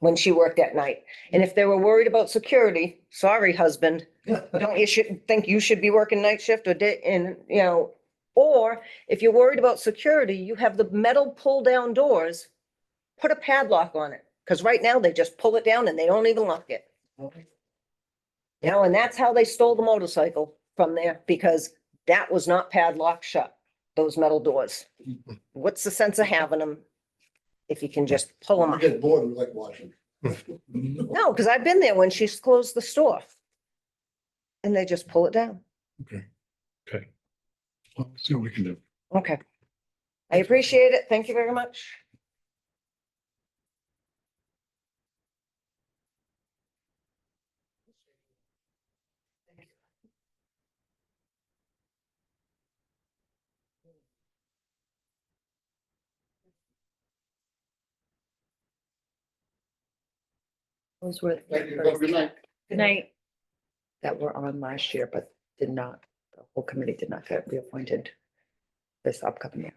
when she worked at night. And if they were worried about security, sorry, husband, Yeah, don't you should think you should be working night shift or day and, you know, or if you're worried about security, you have the metal pull down doors, put a padlock on it. Cause right now they just pull it down and they don't even lock it. You know, and that's how they stole the motorcycle from there because that was not padlocked shut, those metal doors. What's the sense of having them if you can just pull them We up? get bored, we like watching. No, because I've been there when she's closed the store. And they just pull it down. Well, See what we can do. Okay. I appreciate it. Thank you very much. Those were Thank you, the have a good first night. Good night. that were on last year, but did not, the whole committee did not get reappointed this upcoming year.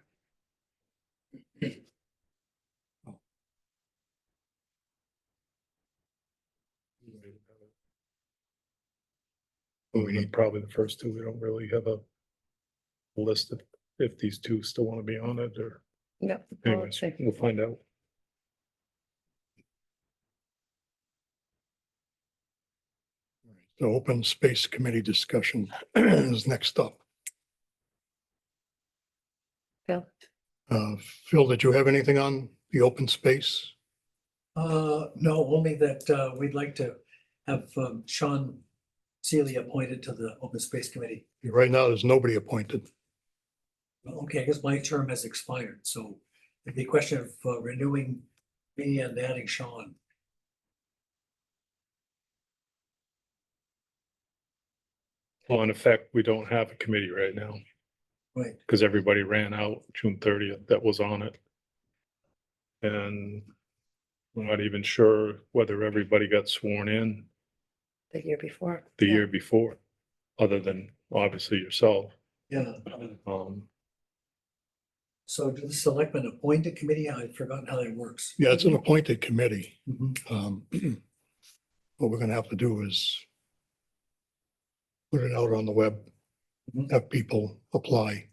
We need probably the first two. We don't really have a list of if these two still want to be on it or No. well, anyways, thank you. we'll find out. The open space committee discussion is next up. Phil? Uh, Phil, did you have anything on the open space? Uh, no, only that, uh, we'd like to have, um, Sean Seely appointed to the Open Space Committee. Right now, there's nobody appointed. Well, Okay, I guess my term has expired, so it'd be a question of uh, renewing me and adding Sean. Well, in effect, we don't have a committee right now Right, because everybody ran out June thirtieth that was on it. And we're not even sure whether everybody got sworn in The year before. the Yeah. year before, other than obviously yourself. yeah. Um, So do the selectmen appoint a committee? I've forgotten how that works. Yeah, it's an appointed committee. Mhm. Um, What we're gonna have to do is put it out on the web, Mhm. have people apply.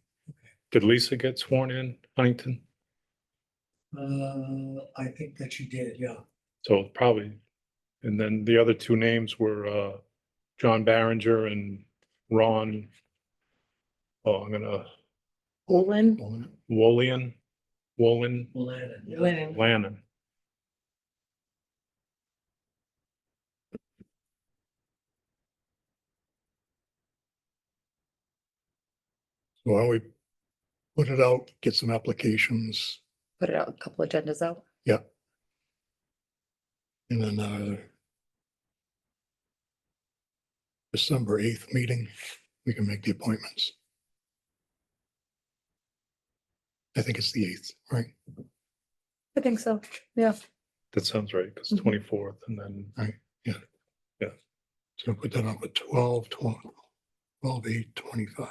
did Lisa get sworn in Huntington? Uh, I think that you did, yeah. So probably, and then the other two names were, uh, John Barringer and Ron. Oh, I'm gonna, Olin. Wolian, Wolin, Lannan, yeah. Lennon. Lannon. So why don't we put it out, get some applications, Put it out, a couple agendas out. and then uh, our December eighth meeting, we can make the appointments. I think it's the eighth, right? I think so. That sounds right, because Mhm. twenty-fourth and then So put that up at twelve, twelve, twelve, eight, twenty-five.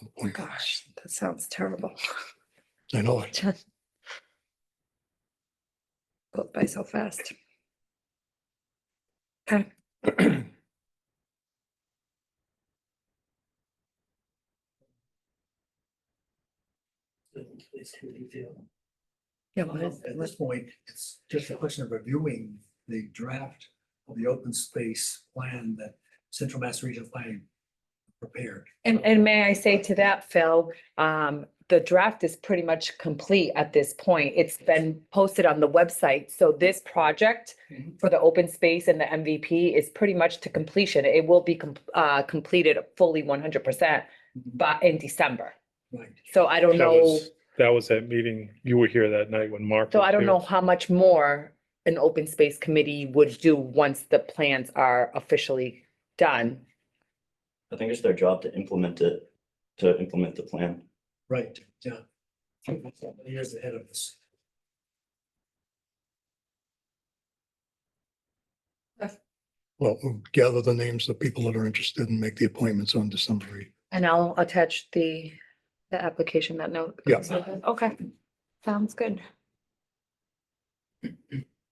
Appointments. Gosh, that sounds terrible. I know it. Both by so fast. It's really feel- Yeah, Well, what is, At what- this point, it's just a question of reviewing the draft of the open space plan that Central Mass Regional Planning prepared. And, and may I say to that, Phil, um, the draft is pretty much complete at this point. It's been posted on the website. So this project Mm-hmm. Mhm. for the open space and the MVP is pretty much to completion. It will be, com- uh, completed fully one hundred percent by, in December. Right. So I don't Mm-hmm. that know, was, that was that meeting, you were here that night when Mark. so was I don't here. know how much more an open space committee would do once the plans are officially done. I think it's their job to implement it, to implement the plan. Right, yeah. Years ahead of us. Well, we'll gather the names of people that are interested and make the appointments on December eighth. and I'll attach the, the application that note. Yeah. Okay, sounds good.